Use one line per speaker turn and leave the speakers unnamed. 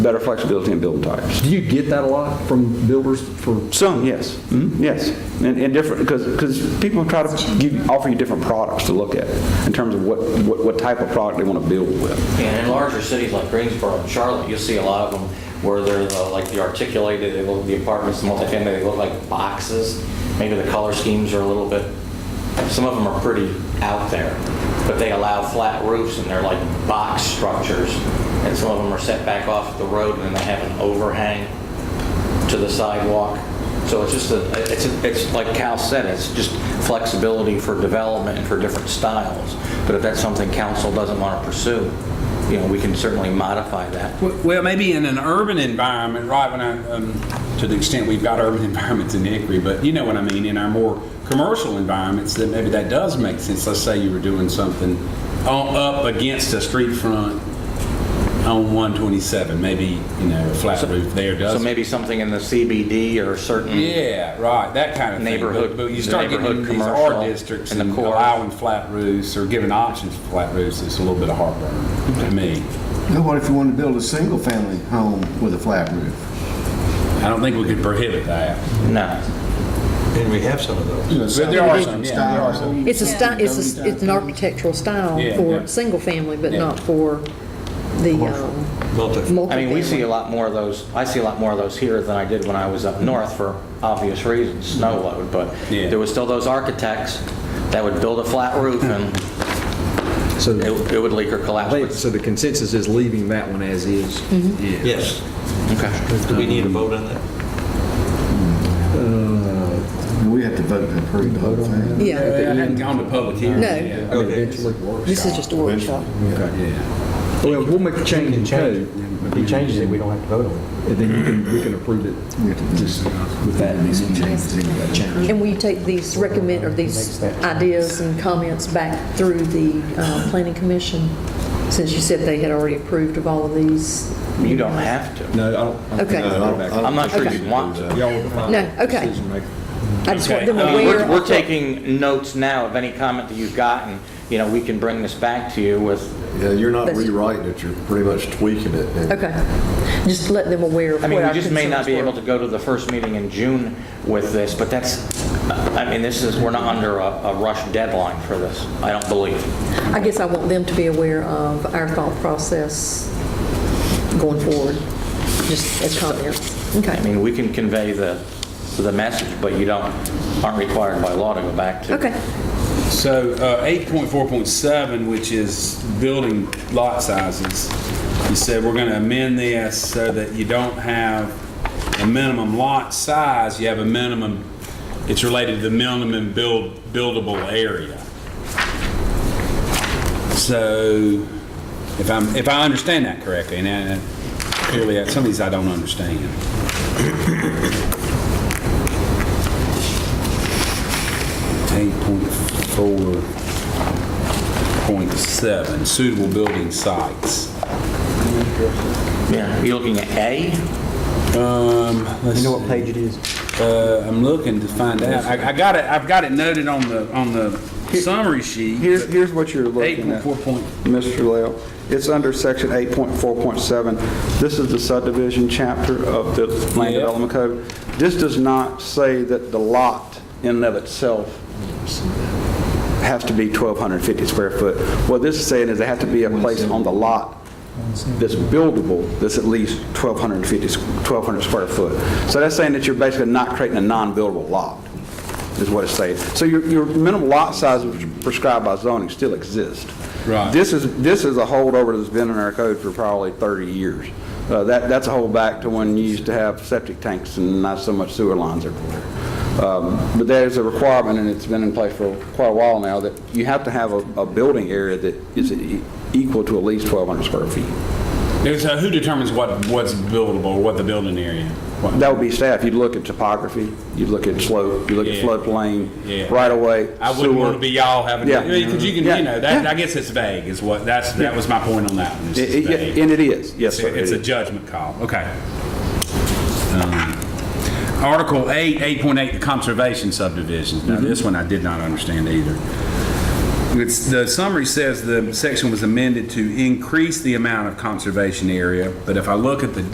better flexibility in build types.
Do you get that a lot from builders for,
Some, yes, Mhm, yes, and, and different, because, because people try to give, offer you different products to look at in terms of what, what, what type of product they want to build with.
And in larger cities like Greensboro and Charlotte, you see a lot of them where they're the- like the articulated, they look, the apartments, multifamily, they look like boxes. Maybe the color schemes are a little bit, some of them are pretty out there, but they allow flat roofs and they're like box structures. And some of them are set back off the road and then they have an overhang to the sidewalk. So it's just a, it's, a- it's like Cal said, it's just flexibility for development and for different styles. But if that's something council doesn't want to pursue, you know, we can certainly modify that.
Well, maybe in an urban environment, right, when I, um, to the extent we've got urban environments in Hickory, but you know what I mean, in our more commercial environments, that maybe that does make sense. Let's say you were doing something on, up against a street front on 127, maybe, you know, a flat roof there does.
So maybe something in the CBD or certain.
Yeah, right, that kind of thing.
Neighborhood-
But- But you
the
start getting
neighborhood
into these
commercial
R districts
and the
and
core.
allowing flat roofs or giving options for flat roofs, it's a little bit of heartburn to me.
Now, what if you wanted to build a single-family home with a flat roof?
I don't think we could prohibit that.
No.
And we have some of those.
But there are some, yeah, there are some.
It's a style, it's a, s- it's an architectural style
Yeah, yeah.
for single family, but
Yeah.
not for the, um,
Multi-
multifamily.
I mean, we see a lot more of those, I see a lot more of those here than I did when I was up north for obvious reasons, snow load. But
Mm-hmm. Yeah.
there was still those architects that would build a flat roof and
so,
it it would leak or collapse.
wait, so the consensus is leaving that one as is? Yeah.
Yes.
Okay.
Do we need a vote on that?
And we have to vote to approve the whole
Uh,
thing.
I
Yeah,
hadn't gone to public hearing.
No.
yet.
I mean,
Okay.
Eventually, works.
this is just a workshop.
Okay. Well, we'll make a change in code,
If he changes it, we don't have to vote on it.
and then you can, we can approve it just with that.
And will you take these recommend, or these ideas and comments back through the, uh, planning commission? Since you said they had already approved of all of these?
You don't have to.
No, I don't.
Okay.
I'm not sure you want to.
Y'all.
No, okay. I just want them
I mean, Uh,
aware
Um, We're,
of
we're
what-
taking notes now of any comment that you've gotten, you know, we can bring this back to you with,
Yeah, you're not
That's-
rewriting it, you're pretty much tweaking it. and-
Okay, just let them aware
I
of what our
mean, we
concerns
just may not be
were.
able to go to the first meeting in June with this, but that's, I mean, this is, we're not under a, a rush deadline for this, I don't believe.
I guess I want them to be aware of our thought process going forward, just as comments.
I
Okay,
mean, we can convey the, the message, but you don't, aren't required by law to go back to.
okay.
So uh, 8.4.7, which is building lot sizes, you said we're going to amend this so that you don't have a minimum lot size, you have a minimum, it's related to the minimum build, buildable area. So if I'm, if I understand that correctly, and uh, clearly uh, some of these I don't understand. Eight point four point seven suitable building sites.
Yeah, you looking at A?
Um, let's
You know what
see.
page it is?
Uh, I'm looking to find out. I, I got it, I've got it noted on the, on the summary sheet.
Here's, here's what you're
Eight
looking
point
at.
four point,
Mr. Leo, it's under section 8.4.7. This is the subdivision chapter of the Land
Yeah.
Development Code. This does not say that the lot in and of itself has to be 1,250 square foot. What this is saying is there has to be a place on the lot that's buildable, that's at least 1,250, squ- 1,200 square foot. So that's saying that you're basically not creating a non-buildable lot, is what it's saying. So your, your minimum lot size which is prescribed by zoning still exists.
Right.
This is, this is a holdover that's been in our code for probably 30 years. Uh, That, that's a hold back to when you used to have septic tanks and not so much sewer lines everywhere. Um, But there's a requirement, and it's been in place for quite a while now, that you have to have a, a building area that is e- equal to at least 1,200 square feet.
there's a, who determines what, what's buildable, or what the building area? what-
That would be staff. You'd look at topography, you'd look at slope, you'd look at
Yeah. Yeah.
floodplain, right away.
I wouldn't want to be y'all having,
Yeah.
because you can,
Yeah.
you know, that,
Yeah.
I guess it's vague is what, that's, that was my point on that one. is it's vague.
And it is, yes, sir.
It's
it
a
is.
judgment call, okay. Um, Article 8, 8.8, the conservation subdivisions.
Mm-hmm.
Now, this one I did not understand either. It's, the summary says the section was amended to increase the amount of conservation area, but if I look at the